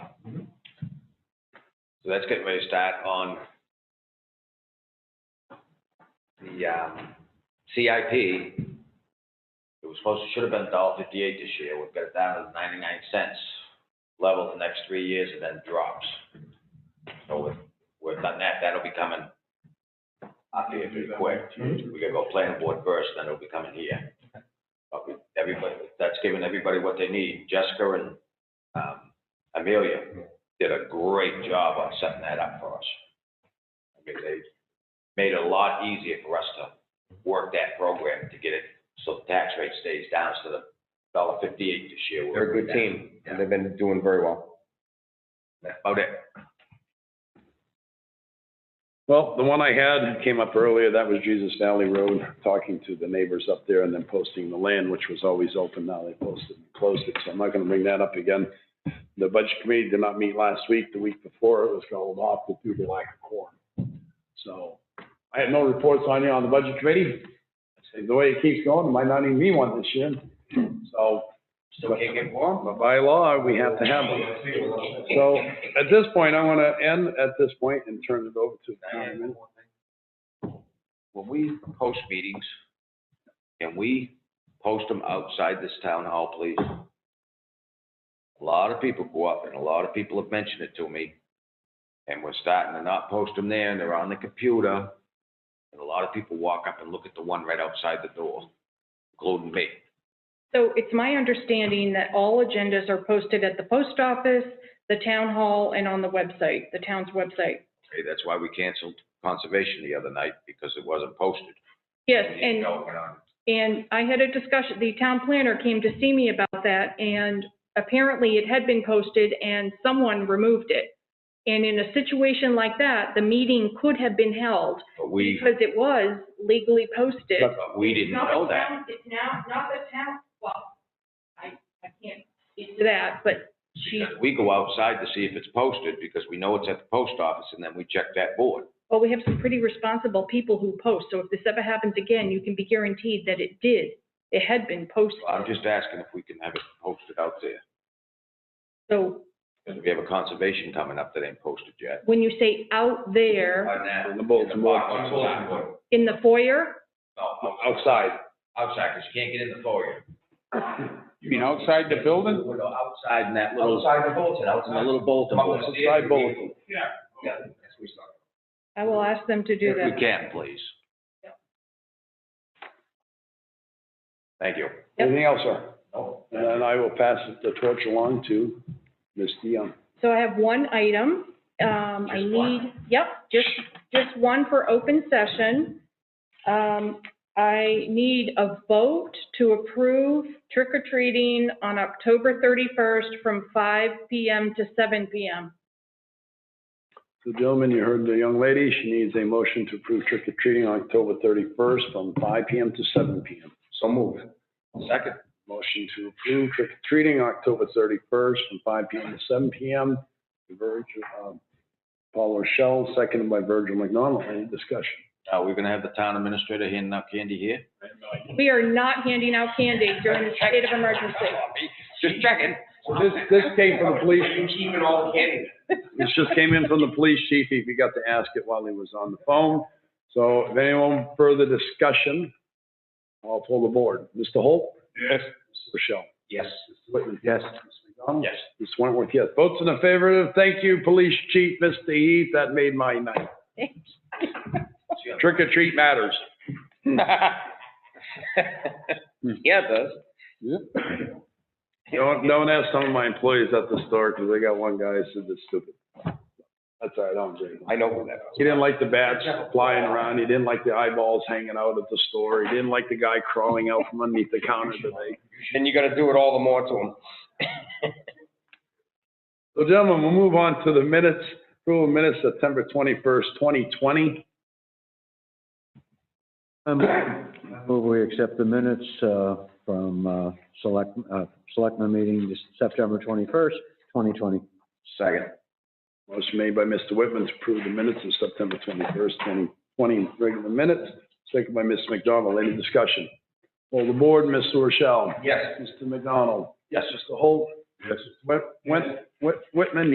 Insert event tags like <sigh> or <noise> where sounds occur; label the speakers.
Speaker 1: So that's getting ready to start on the, um, CIP. It was supposed, to should have been $1.58 this year. We've got it down to ninety-nine cents level the next three years and then drops. So we've, we've done that. That'll be coming up here pretty quick. We gotta go planning board first, then it'll be coming here. But we- Everybody, that's giving everybody what they need. Jessica and, um, Amelia did a great job on setting that up for us. I mean, they made it a lot easier for us to work that program to get it, so the tax rate stays down to the dollar fifty-eight this year.
Speaker 2: They're a good team, and they've been doing very well.
Speaker 1: That's about it.
Speaker 3: Well, the one I had came up earlier, that was Jesus Valley Road, talking to the neighbors up there and then posting the land, which was always open, now they posted, closed it, so I'm not gonna bring that up again. The budget committee did not meet last week, the week before, it was called off due to lack of quorum. So, I had no reports on you on the budget committee, the way it keeps going, it might not even be one this year, so.
Speaker 1: Still can't get warm?
Speaker 3: But by law, we have to have one. So, at this point, I wanna end at this point and turn it over to Diane.
Speaker 1: When we post meetings, can we post them outside this town hall, please? A lot of people go up and a lot of people have mentioned it to me. And we're starting to not post them there and they're on the computer. And a lot of people walk up and look at the one right outside the door, including me.
Speaker 4: So it's my understanding that all agendas are posted at the post office, the town hall, and on the website, the town's website.
Speaker 1: Okay, that's why we canceled conservation the other night because it wasn't posted.
Speaker 4: Yes,
Speaker 1: We didn't
Speaker 4: and,
Speaker 1: know it went on.
Speaker 4: and I had a discussion, the town planner came to see me about that, and apparently it had been posted and someone removed it. And in a situation like that, the meeting could have been held
Speaker 1: But we,
Speaker 4: because it was legally posted.
Speaker 1: but we didn't
Speaker 4: Not the
Speaker 1: know that.
Speaker 4: town- It's now, not the town, well, I, I can't speak to that, but she,
Speaker 1: Because we go outside to see if it's posted, because we know it's at the post office, and then we check that board.
Speaker 4: well, we have some pretty responsible people who post, so if this ever happens again, you can be guaranteed that it did. It had been posted,
Speaker 1: So I'm just asking if we can have it posted out there,
Speaker 4: so
Speaker 1: because we have a conservation coming up that ain't posted yet.
Speaker 4: when you say out there,
Speaker 3: In the bulletin board.
Speaker 4: in the foyer,
Speaker 1: No,
Speaker 3: Outside.
Speaker 1: outside, because you can't get in the foyer.
Speaker 5: You mean outside the building?
Speaker 1: Outside in that little. Outside the bulletin, outside. A little bulletin
Speaker 3: Come up
Speaker 1: board.
Speaker 3: with a side bulletin.
Speaker 1: Yeah.
Speaker 4: I will ask them to
Speaker 1: If
Speaker 4: do
Speaker 1: we
Speaker 4: that.
Speaker 1: can, please. Thank you.
Speaker 3: Anything else, sir? And then I will pass the torch along to Ms. Dion.
Speaker 4: So I have one item, um, I
Speaker 1: Just one.
Speaker 4: need, yep, just, just one for open session. Um, I need a vote to approve trick or treating on October thirty-first from five PM to seven PM.
Speaker 3: So gentlemen, you heard the young lady, she needs a motion to approve trick or treating on October thirty-first from five PM to seven PM. So moved.
Speaker 1: Second.
Speaker 3: Motion to approve trick or treating October thirty-first from five PM to seven PM. Virgil, um, Paul Rochelle, seconded by Virgil McDonald. Any discussion?
Speaker 1: Are we Uh, gonna have the town administrator handing out candy here?
Speaker 4: We are not handing out candy during the state of emergency.
Speaker 1: Just checking.
Speaker 3: So this, this came from the police.
Speaker 1: Keeping all the candy.
Speaker 3: <laughs> This just came in from the police chief. He forgot to ask it while he was on the phone. So if anyone further discussion, I'll pull the board. Mr. Holt?
Speaker 5: Yes.
Speaker 3: Rochelle?
Speaker 1: Yes.
Speaker 3: Whitman? Yes.
Speaker 1: Yes.
Speaker 3: Ms. Wentworth, yes. Votes in the favor. Thank you, police chief, Mr. Heath. That made my night. Trick or treat matters.
Speaker 1: <laughs>
Speaker 2: <laughs> Yeah, it does.
Speaker 3: Don't, don't ask some of my employees at the store because they got one guy who said it's stupid. That's all right, I don't drink.
Speaker 2: I know who that is.
Speaker 3: He didn't like the bats flying around. He didn't like the eyeballs hanging out at the store. He didn't like the guy crawling out from underneath the counter today.
Speaker 2: And you gotta do it all the more to them.
Speaker 3: So gentlemen, we'll move on to the minutes, approval of minutes, September twenty-first, twenty twenty.
Speaker 6: Um, Move we accept the minutes uh, from uh, select, uh, selectmen meeting this September 21st, 2020.
Speaker 2: Second.
Speaker 3: Motion made by Mr. Whitman to approve the minutes of September twenty-first, twenty twenty, regular minutes, second by Ms. McDonald. Any discussion? All the board, Mr. Rochelle.
Speaker 2: Yes.
Speaker 3: Mr. McDonald. Yes. Mr. Holt. Yes. Whit, Whit, Whitman,